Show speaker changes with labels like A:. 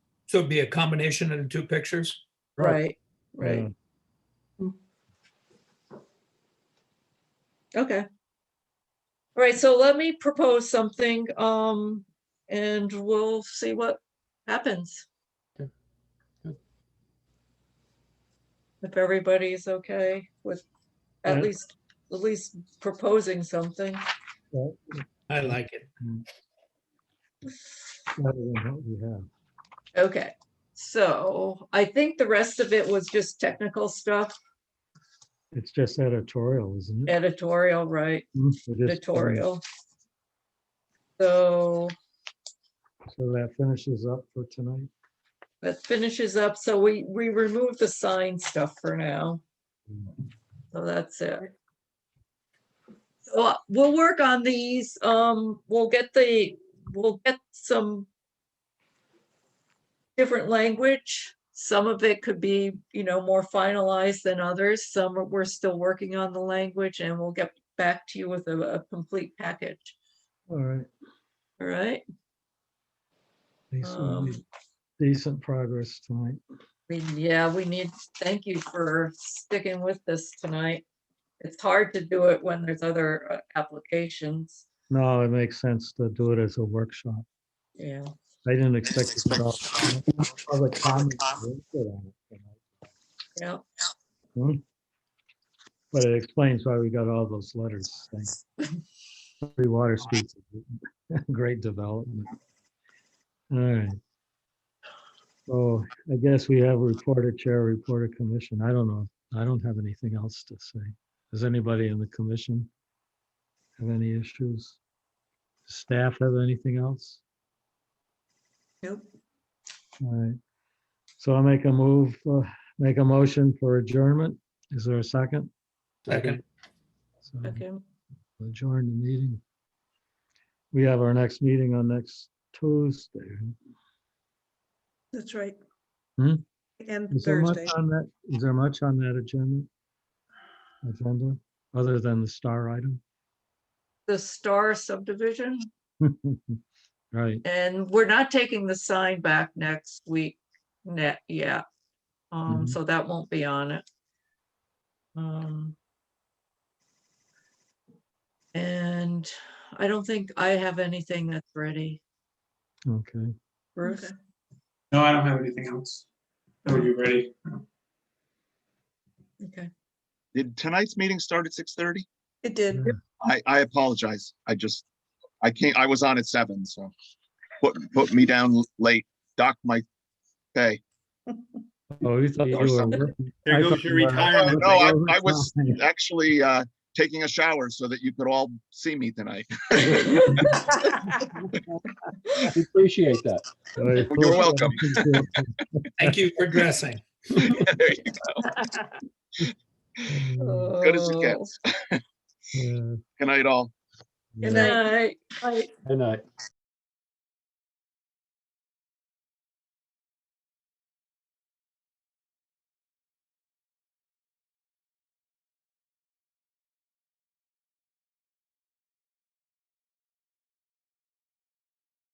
A: So it'd be a combination of the two pictures?
B: Right,
C: Yeah.
B: right. Okay. All right, so let me propose something, um, and we'll see what happens.
C: Okay, good.
B: If everybody's okay with at
C: Yeah.
B: least, at least proposing something.
C: Well,
A: I like it.
C: better than what we have.
B: Okay, so I think the rest of it was just technical stuff,
C: It's just editorial, isn't it?
B: editorial, right?
C: Mm, it is-
B: Editorial. So
C: So that finishes up for tonight.
B: that finishes up. So we, we remove the sign stuff for now. So that's it. So uh, we'll work on these. Um, we'll get the, we'll get some different language. Some of it could be, you know, more finalized than others. Some are- we're still working on the language and we'll get back to you with a, a complete package.
C: All right.
B: All right?
C: at least we
B: Um,
C: made Decent progress tonight.
B: We- Yeah, we need, thank you for sticking with this tonight. It's hard to do it when there's other uh, applications.
C: No, it makes sense to do it as a workshop.
B: Yeah.
C: I didn't expect. to get all- all the comments we put on it tonight.
B: Yeah,
C: But it explains why we got all those letters. Thanks. Three Water Street, great development. All right. So I guess we have reporter chair, reporter commission. I don't know. I don't have anything else to say. Does anybody in the commission have any issues? Staff have anything else?
B: Nope.
C: All right. So I'll make a move, uh, make a motion for adjournment. Is there a second?
A: Second,
C: So
B: okay.
C: adjourn the meeting. We have our next meeting on next Tuesday.
D: That's right.
C: Hmm?
D: And
C: Is there much
D: Thursday.
C: on that, is there much on that agenda? Agenda, other than the star item?
B: The Star subdivision,
C: Right,
B: and we're not taking the sign back next week, net, yeah. Um,
C: Mhm.
B: so that won't be on it. Um. And I don't think I have anything that's ready,
C: okay.
B: Bruce.
E: No, I don't have anything else. Are you ready?
B: Okay.
F: Did tonight's meeting start at six thirty?
D: It did.
F: I, I apologize. I just, I can't, I was on at seven, so put, put me down l- late, docked my pay.
C: Oh, you thought you
F: Or
C: were.
F: something.
C: working-
E: There
C: I
E: goes
C: thought
E: your
C: you were-
E: retirement.
F: Oh, No, I, I was
C: Overtime.
F: actually, uh, taking a shower so that you could all see me tonight.
G: We Appreciate that.
C: You're
F: welcome.
A: thank you for dressing.
F: There you go. good as it gets.
C: Yeah.
F: Good night, all.
B: Good night.
G: Good night.